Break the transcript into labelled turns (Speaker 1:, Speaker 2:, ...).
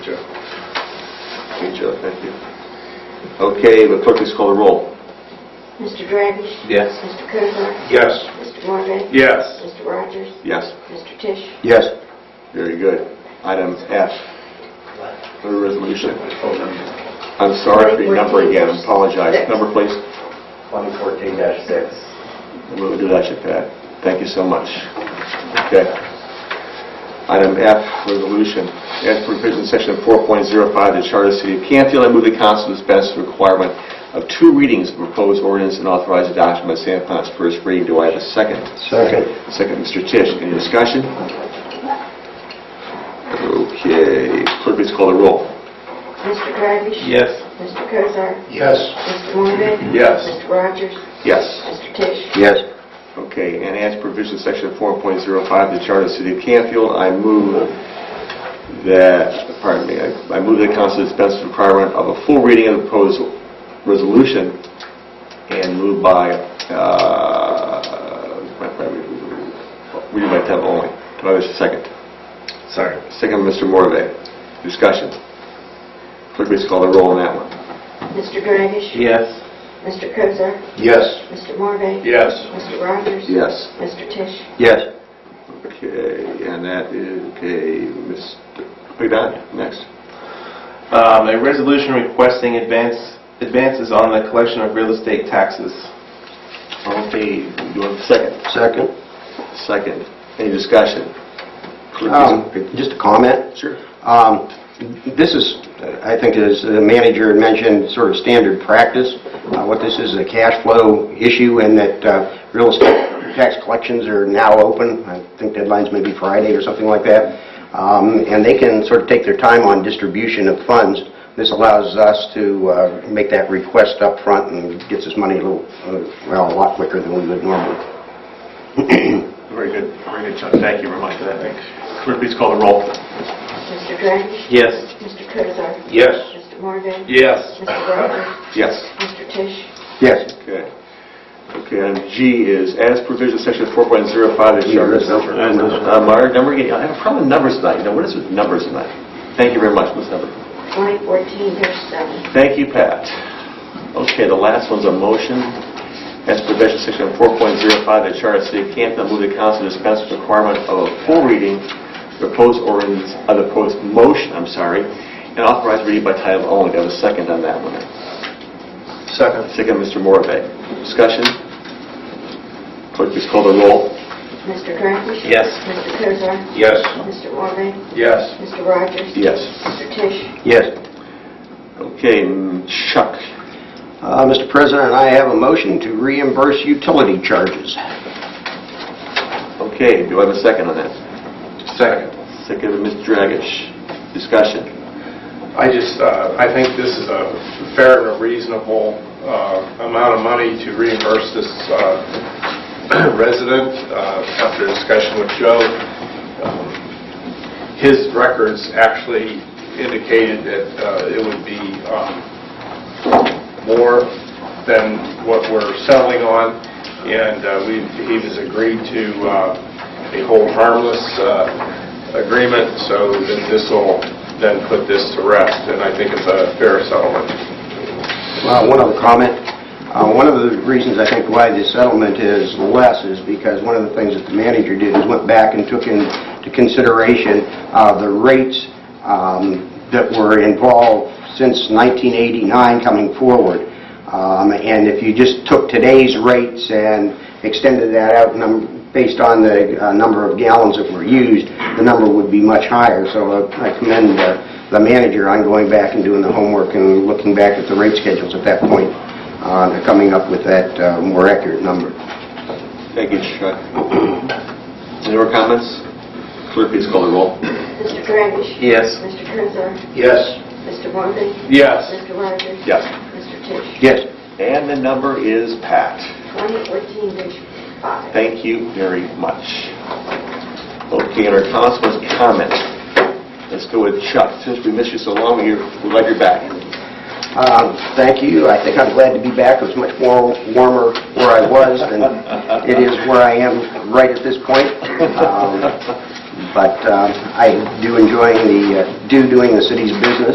Speaker 1: Hey, Joe, thank you. Okay, the clerk, please call the roll.
Speaker 2: Mr. Dragish?
Speaker 3: Yes.
Speaker 2: Mr. Kuzma?
Speaker 3: Yes.
Speaker 2: Mr. Morvay?
Speaker 3: Yes.
Speaker 2: Mr. Rogers?
Speaker 1: Yes.
Speaker 2: Mr. Tisch?
Speaker 1: Yes. Very good. Item F, the resolution. I'm sorry for the number again, I apologize. Number, please.
Speaker 4: 2014-6.
Speaker 1: We'll do that, Chip, Pat. Thank you so much. Okay. Item F, resolution. As per provision in section 4.05 of the Charter of the City of Canfield, I move the council dispense with the requirement of two readings of proposed ordinance and authorize adoption by San upon its first reading. Do I have a second?
Speaker 4: Second.
Speaker 1: Second, Mr. Tisch. Any discussion? Okay. Clerk, please call the roll.
Speaker 2: Mr. Dragish?
Speaker 3: Yes.
Speaker 2: Mr. Kuzma?
Speaker 4: Yes.
Speaker 2: Mr. Morvay?
Speaker 1: Yes.
Speaker 2: Mr. Rogers?
Speaker 1: Yes.
Speaker 2: Mr. Tisch?
Speaker 1: Yes. Okay, and as provision section 4.05 of the Charter of the City of Canfield, I move that, pardon me, I I move that council dispense with the requirement of a full reading of the proposed resolution and move by, uh, by- by- reading by title only. Do I have a second?
Speaker 3: Sorry.
Speaker 1: Second, Mr. Morve. Discussion. Clerk, please call the roll on that one.
Speaker 2: Mr. Dragish?
Speaker 3: Yes.
Speaker 2: Mr. Kuzma?
Speaker 4: Yes.
Speaker 2: Mr. Morvay?
Speaker 3: Yes.
Speaker 2: Mr. Rogers?
Speaker 1: Yes.
Speaker 2: Mr. Tisch?
Speaker 1: Yes. Okay, and that is, okay, Mr. McDonough, next.
Speaker 3: Um, a resolution requesting advance, advances on the collection of real estate taxes.
Speaker 1: Okay, you want a second?
Speaker 4: Second.
Speaker 1: Second. Any discussion? Oh.
Speaker 4: Um, Just a comment.
Speaker 1: Sure.
Speaker 4: Um, This is, I think as the manager had mentioned, sort of standard practice. Uh, What this is, a cash flow issue and that uh, real estate tax collections are now open. I think deadline's maybe Friday or something like that. Um, And they can sort of take their time on distribution of funds. This allows us to uh, make that request up front and gets us money a little, uh, well, a lot quicker than we would normally.
Speaker 1: Very good, very good, John. Thank you very much for that. Clerk, please call the roll.
Speaker 2: Mr. Dragish?
Speaker 3: Yes.
Speaker 2: Mr. Kuzma?
Speaker 3: Yes.
Speaker 2: Mr. Morvay?
Speaker 3: Yes.
Speaker 2: Mr. Rogers?
Speaker 1: Yes.
Speaker 2: Mr. Tisch?
Speaker 4: Yes.
Speaker 1: Okay. Okay, item G is, as provision section 4.05 of the
Speaker 4: Yeah,
Speaker 1: Charter.
Speaker 4: that's number.
Speaker 1: Uh, Meyer, number, again, I have a problem with numbers tonight. You know, what is with numbers tonight? Thank you very much, Ms. Hubbard.
Speaker 2: 2014-7.
Speaker 1: Thank you, Pat. Okay, the last one's a motion. As per provision section 4.05 of the Charter of the City of Canfield, move the council dispense with the requirement of a full reading, of the proposed ordinance, of the proposed motion, I'm sorry, and authorize reading by title only. Do I have a second on that one?
Speaker 4: Second.
Speaker 1: Second, Mr. Morvay. Discussion? Clerk, please call the roll.
Speaker 2: Mr. Dragish?
Speaker 3: Yes.
Speaker 2: Mr. Kuzma?
Speaker 3: Yes.
Speaker 2: Mr. Morvay?
Speaker 3: Yes.
Speaker 2: Mr. Rogers?
Speaker 1: Yes.
Speaker 2: Mr. Tisch?
Speaker 4: Yes.
Speaker 1: Okay, mm, Chuck.
Speaker 4: Uh, Mr. President, I have a motion to reimburse utility charges.
Speaker 1: Okay, do I have a second on that?
Speaker 5: Second.
Speaker 1: Second, Mr. Dragish. Discussion?
Speaker 5: I just, uh, I think this is a fair and a reasonable uh, amount of money to reimburse this uh, resident uh, after discussion with Joe. um, His records actually indicated that uh, it would be um, more than what we're settling on, and uh, we, he has agreed to uh, a whole harmless uh, agreement, so that this will then put this to rest, and I think it's a fair settlement.
Speaker 4: Uh, One other comment. Uh, One of the reasons I think why the settlement is less is because one of the things that the manager did is went back and took into consideration uh, the rates um, that were involved since 1989 coming forward. Um, And if you just took today's rates and extended that out num- based on the uh, number of gallons that were used, the number would be much higher. So uh, I commend uh, the manager on going back and doing the homework and looking back at the rate schedules at that point, uh, to coming up with that uh, more accurate number.
Speaker 1: Thank you, Chuck. Any more comments? Clerk, please call the roll.
Speaker 2: Mr. Dragish?
Speaker 3: Yes.
Speaker 2: Mr. Kuzma?
Speaker 4: Yes.
Speaker 2: Mr. Morvay?
Speaker 5: Yes.
Speaker 2: Mr. Rogers?
Speaker 1: Yes.
Speaker 2: Mr. Tisch?
Speaker 4: Yes.
Speaker 1: And the number is Pat.
Speaker 2: 2014-5.
Speaker 1: Thank you very much. Okay, and our councilman's comment. Let's go with Chuck. Since we missed you so long, we're we're glad you're back.
Speaker 4: Um, Thank you. I think I'm glad to be back. It was much more warmer where I was than it is where I am right at this point. Um, But um, I do enjoying the, uh, do doing the city's business,